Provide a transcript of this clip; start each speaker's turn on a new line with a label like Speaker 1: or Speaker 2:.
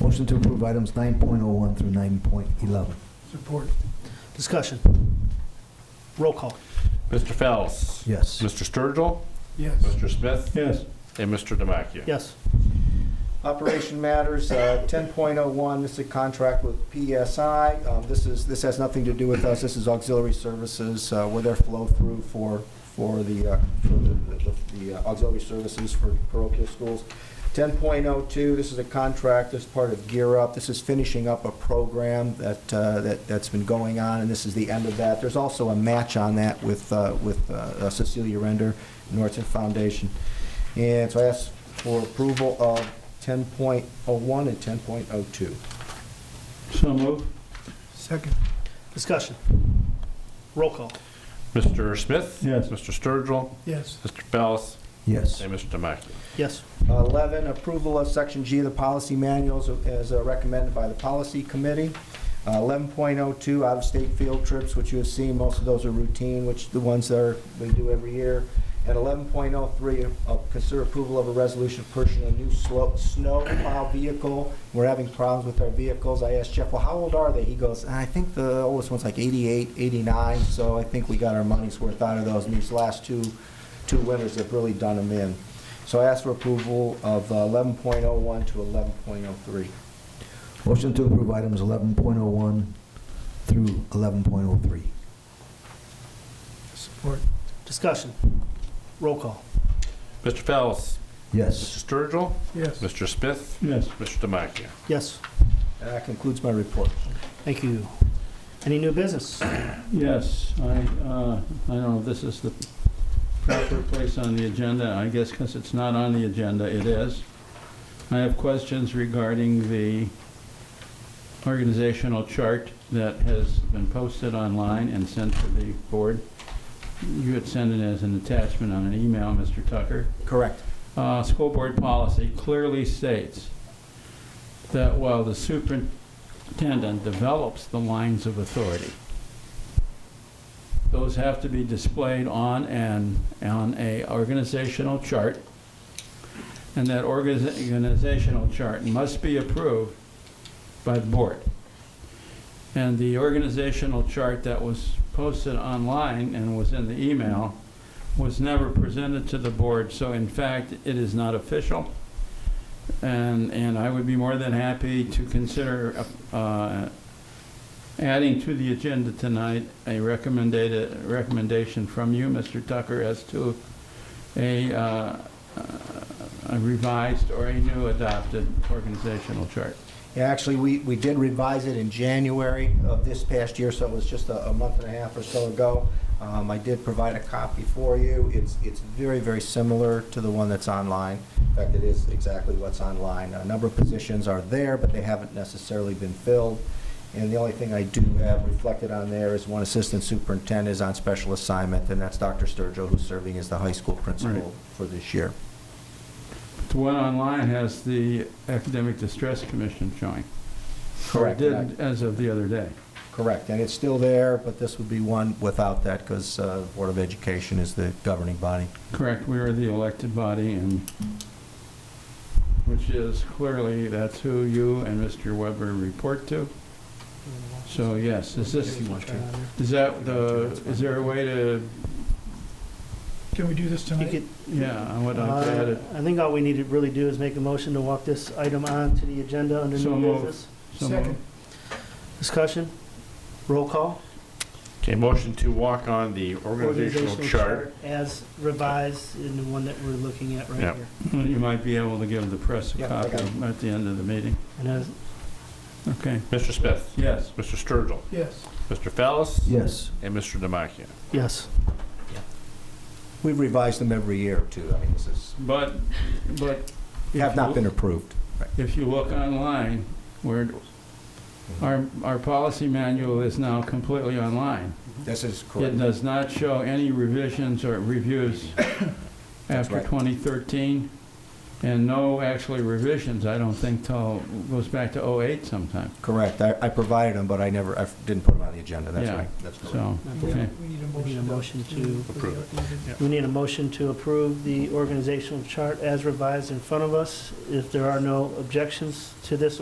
Speaker 1: Motion to approve items 9.01 through 9.11.
Speaker 2: Support. Discussion. Roll call.
Speaker 3: Mr. Fels?
Speaker 1: Yes.
Speaker 3: Mr. Sturgill?
Speaker 2: Yes.
Speaker 3: Mr. Smith?
Speaker 4: Yes.
Speaker 3: And Mr. Damachia?
Speaker 2: Yes.
Speaker 5: Operation matters, uh, 10.01, this is a contract with PSI. Um, This is, this has nothing to do with us, this is auxiliary services, uh, where their flow-through for, for the, uh, for the- the- the uh, auxiliary services for parochial schools. 10.02, this is a contract as part of Gear Up. This is finishing up a program that, uh, that, that's been going on, and this is the end of that. There's also a match on that with, uh, with uh, Cecilia Render, Norton Foundation. And so I ask for approval of 10.01 and 10.02.
Speaker 4: So moved.
Speaker 2: Second. Discussion. Roll call.
Speaker 3: Mr. Smith?
Speaker 4: Yes.
Speaker 3: Mr. Sturgill?
Speaker 2: Yes.
Speaker 3: Mr. Fels?
Speaker 1: Yes.
Speaker 3: And Mr. Damachia?
Speaker 2: Yes.
Speaker 5: 11, approval of Section G of the policy manuals as uh, recommended by the Policy Committee. Uh, 11.02, out-of-state field trips, which you have seen, most of those are routine, which the ones that are, we do every year. And 11.03, uh, consider approval of a resolution purchasing a new slow- snow plow vehicle. We're having problems with our vehicles. I asked Jeff, well, how old are they? He goes, I think the oldest one's like 88, 89, so I think we got our money's worth out of those. And these last two, two winters have really done them in. So I ask for approval of uh, 11.01 to 11.03.
Speaker 1: Motion to approve items 11.01 through 11.03.
Speaker 2: Support. Discussion. Roll call.
Speaker 3: Mr. Fels?
Speaker 1: Yes.
Speaker 3: Mr. Sturgill?
Speaker 2: Yes.
Speaker 3: Mr. Smith?
Speaker 4: Yes.
Speaker 3: Mr. Damachia?
Speaker 2: Yes.
Speaker 5: And that concludes my report.
Speaker 2: Thank you. Any new business?
Speaker 4: Yes, I, uh, I don't know if this is the proper place on the agenda, I guess because it's not on the agenda, it is. I have questions regarding the organizational chart that has been posted online and sent to the board. You had sent it as an attachment on an email, Mr. Tucker.
Speaker 5: Correct.
Speaker 4: uh, school board policy clearly states that while the superintendent develops the lines of authority, those have to be displayed on an, on a organizational chart, and that organiza- organizational chart must be approved by the board. And the organizational chart that was posted online and was in the email was never presented to the board, so in fact, it is not official. And, and I would be more than happy to consider uh, adding to the agenda tonight a recommended, recommendation from you, Mr. Tucker, as to a uh, a revised or a new adopted organizational chart.
Speaker 5: Yeah, actually, we, we did revise it in January of this past year, so it was just a, a month and a half or so ago. Um, I did provide a copy for you. It's, it's very, very similar to the one that's online. In fact, it is exactly what's online. A number of positions are there, but they haven't necessarily been filled. And the only thing I do have reflected on there is one assistant superintendent is on special assignment, and that's Dr. Sturgill, who's serving as the high school
Speaker 4: Right.
Speaker 5: principal for this year.
Speaker 4: The one online has the Academic Distress Commission showing. Or
Speaker 5: Correct. and I-
Speaker 4: Did as of the other day.
Speaker 5: Correct, and it's still there, but this would be one without that, because Board of Education is the governing body.
Speaker 4: Correct, we are the elected body and, which is clearly, that's who you and Mr. Weber report to. So yes, is this, is that the, is there a way to,
Speaker 6: Can we do this
Speaker 2: You
Speaker 6: tonight?
Speaker 2: could-
Speaker 4: yeah, I would like to add
Speaker 2: Uh,
Speaker 4: it.
Speaker 2: I think all we need to really do is make a motion to walk this item on to the agenda under
Speaker 4: So
Speaker 2: new
Speaker 4: moved.
Speaker 2: business.
Speaker 5: Uh,
Speaker 4: So moved.
Speaker 6: Second.
Speaker 2: Discussion. Roll call.
Speaker 3: Okay, motion to walk on the organizational chart.
Speaker 2: As revised in the one that we're looking at right
Speaker 3: Yep.
Speaker 2: here.
Speaker 4: You might be able to give the press a
Speaker 5: Yeah, I
Speaker 4: copy
Speaker 5: got
Speaker 4: at the end of the meeting.
Speaker 2: And as,
Speaker 4: Okay,
Speaker 3: Mr. Smith?
Speaker 4: yes.
Speaker 3: Mr. Sturgill?
Speaker 6: Yes.
Speaker 3: Mr. Fels?
Speaker 1: Yes.
Speaker 3: And Mr. Damachia?
Speaker 2: yes.
Speaker 5: We've revised them every year, too. I mean, this is,
Speaker 4: But, but. if
Speaker 5: have not
Speaker 4: you-
Speaker 5: been approved.
Speaker 4: If you look online, where, our, our policy manual is now completely online.
Speaker 5: This is
Speaker 4: It
Speaker 5: correct.
Speaker 4: does not show any revisions or reviews after
Speaker 5: right.
Speaker 4: 2013, and no actually revisions, I don't think, till, goes back to 08 sometime.
Speaker 5: Correct. I I provided them, but I never, I didn't put them on the agenda. That's
Speaker 4: Yeah.
Speaker 5: right. That's correct.
Speaker 4: So,
Speaker 6: We
Speaker 4: okay.
Speaker 6: need
Speaker 2: We need a
Speaker 6: a motion.
Speaker 2: motion to-
Speaker 3: Approve
Speaker 2: We need a motion to approve the organizational chart as revised in front of us. If there are no objections to this